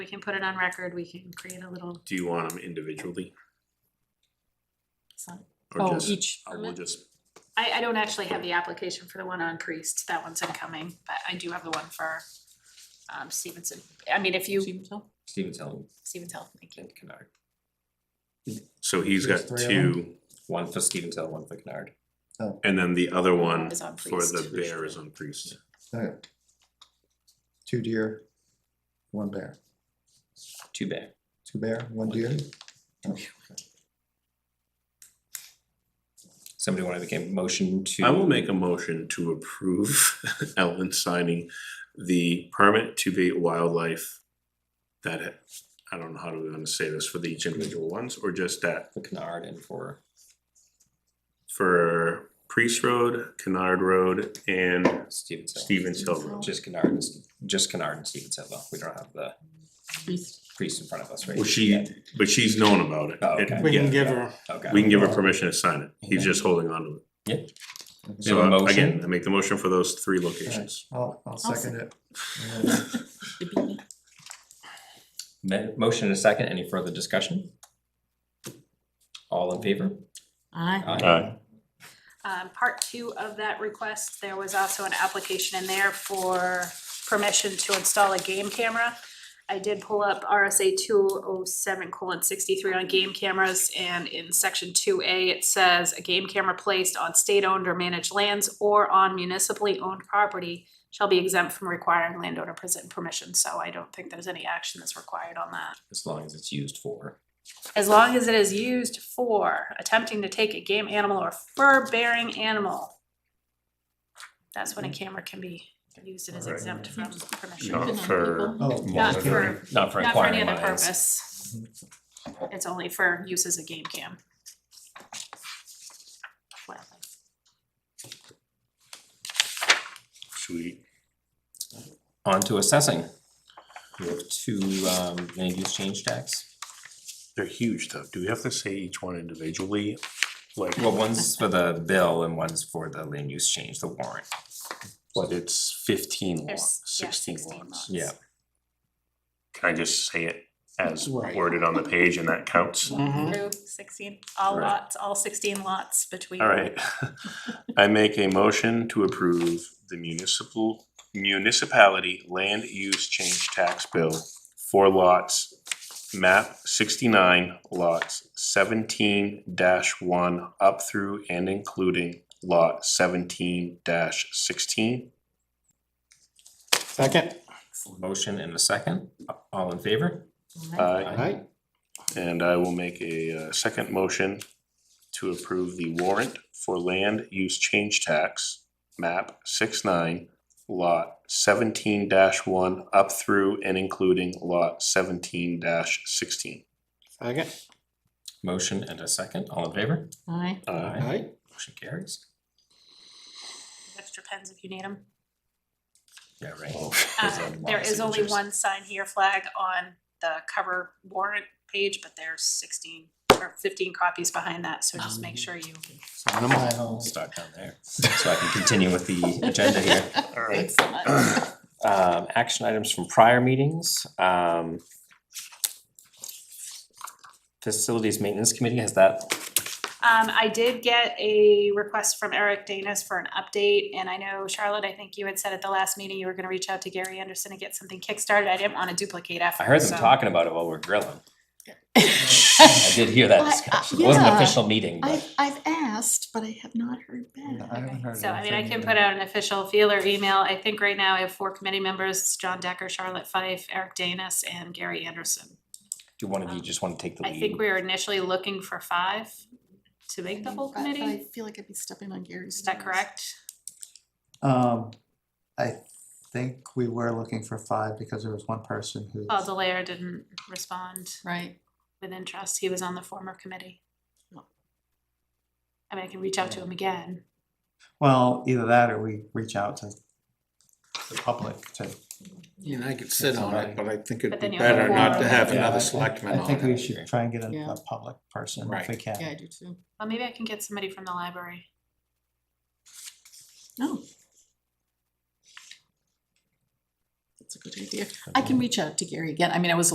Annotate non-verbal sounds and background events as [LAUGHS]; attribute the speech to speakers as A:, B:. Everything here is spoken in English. A: We can put it on record, we can create a little,
B: Do you want them individually
A: some-
B: or
C: Oh,
B: just,
C: each,
B: or we'll just,
A: I, I don't actually have the application for the one on Priest, that one's incoming, but I do have the one for um Stevenson. I mean, if you,
C: Stevens Hill?
D: Stevens Hill
A: Stevens Hill, thank you.
D: and Kennard.
B: so he's got
E: There's three of
B: two,
D: One for Stevens Hill, one for Kennard.
B: and then the other one
A: Is on
B: for the
A: Priest.
B: bear is on priest.
E: Okay. Two deer, one bear,
D: Two bear.
E: two bear, one deer. Oh, okay.
D: Somebody wanna make a motion to.
B: I will make a motion to approve [LAUGHS] Ellen signing the permit to be wildlife that, ha- I don't know how do we wanna say this for the each individual ones, or just that
D: For Kennard and for,
B: for Priest Road, Kennard Road, and
D: Stevens Hill.
B: Stevens Hill Road.
D: Just Kennard and, S- just Kennard and Stevens Hill, though. We don't have the priest in front of us, right?
B: Well, she,
D: yet.
B: but she's known about it.
D: Oh, okay.
B: It-
F: We
B: yeah.
F: can give her,
D: Okay.
B: We can give her permission to sign it, he's just holding on to it.
D: We have a
B: So uh, again,
D: motion.
B: I make the motion for those three locations.
E: I'll, I'll second
F: [LAUGHS]
E: it. Oh,
D: Ma- Motion and a second. Any further discussion? All in favor?
C: Aye.
B: Aye.
A: Um, part two of that request, there was also an application in there for permission to install a game camera. I did pull up RSA two oh seven colon sixty-three on game cameras, and in section two A, it says, a game camera placed on state-owned or managed lands or on municipally owned property shall be exempt from requiring landowner present permission, so I don't think there's any action that's required on that.
D: As long as it's used for.
A: As long as it is used for attempting to take a game animal or fur-bearing animal. That's when a camera can be used and is
B: Alright.
A: exempt from permission.
B: Not for
E: Oh,
A: Mm-hmm. Not
B: monitoring.
A: for,
D: Not for
A: not for any
D: acquiring
A: other
D: lands.
A: purpose.
B: Mm-hmm.
A: It's only for use as a game cam.
B: Sweet.
D: On to assessing. We have two um land use change tax.
B: They're huge though. Do we have to say each one individually? Like,
D: Well, one's for the bill and one's for the land use change, the warrant.
B: but it's fifteen
A: There's,
B: lots,
A: yeah,
B: sixteen
A: 16 lots.
B: lots.
D: Yeah.
B: Can I just say it as
F: Right.
B: worded on the page and that counts?
F: mhm,
A: Through sixteen, all
B: Right.
A: lots, all sixteen lots between.
B: Alright, [LAUGHS] I make a motion to approve the municipal municipality land use change tax bill for lots. Map sixty-nine lots seventeen one up through and including lot seventeen sixteen.
F: second,
D: Motion and a second, all in favor?
F: alright,
B: And I will make a uh, second motion to approve the warrant for land use change tax, map six nine, lot seventeen one, up through and including lot seventeen sixteen.
F: second,
D: Motion and a second, all in favor?
B: Uh,
C: Aye.
F: alright,
D: Motion carries.
A: Extra pens if you need them.
D: Yeah, right. There's a
A: Uh,
D: lot of
A: there is only
D: signatures.
A: one sign here flag on the cover warrant page, but there's sixteen or fifteen copies behind that, so just make sure you.
F: sign 'em all.
D: Start down there, so I can continue with the
A: [LAUGHS]
D: agenda here.
B: Alright,
D: Um, action items from prior meetings, um. Facilities Maintenance Committee, has that
A: Um, I did get a request from Eric Danis for an update, and I know Charlotte, I think you had said at the last meeting you were gonna reach out to Gary Anderson and get something kickstarted. I didn't wanna duplicate effort,
D: I heard
A: so-
D: them talking about it while we we're grilling. I did hear that
A: uh,
C: I- I-
D: discussion. It wasn't an
C: yeah.
D: official meeting,
C: I've,
D: but
C: I've asked, but I have not heard
E: I
C: back.
E: haven't heard
A: So I mean, I
E: anything
A: can
E: yet.
A: put out an official feeler email. I think right now I have four committee members, John Decker, Charlotte Fife, Eric Danis, and Gary Anderson.
D: do one of you just wanna take the lead?
A: Um, I think we were initially looking for five to make the whole
C: But- but I
A: committee,
C: feel like I'd be stepping on Gary's.
A: is that
C: toes.
A: correct?
E: Um, I think we were looking for five because there was one person who.
A: Paul Delaire didn't respond
C: Right.
A: with interest, he was on the former committee.
C: No.
A: I mean, I can reach out to him again,
E: Well, either that or we reach out to the public to.
F: You know, I could sit on it, but I think it'd
A: But
F: be
A: then you'll have
F: better not to
A: four.
F: have
E: Yeah, I- I-
F: another selectman
E: I
F: on
E: think we
F: it.
E: should try and get a,
C: Yeah.
E: a public person if
F: Right.
E: we can.
C: Yeah, I do too.
A: well, maybe I can get somebody from the library.
C: No. That's a good idea. I can reach out to Gary again. I mean, I was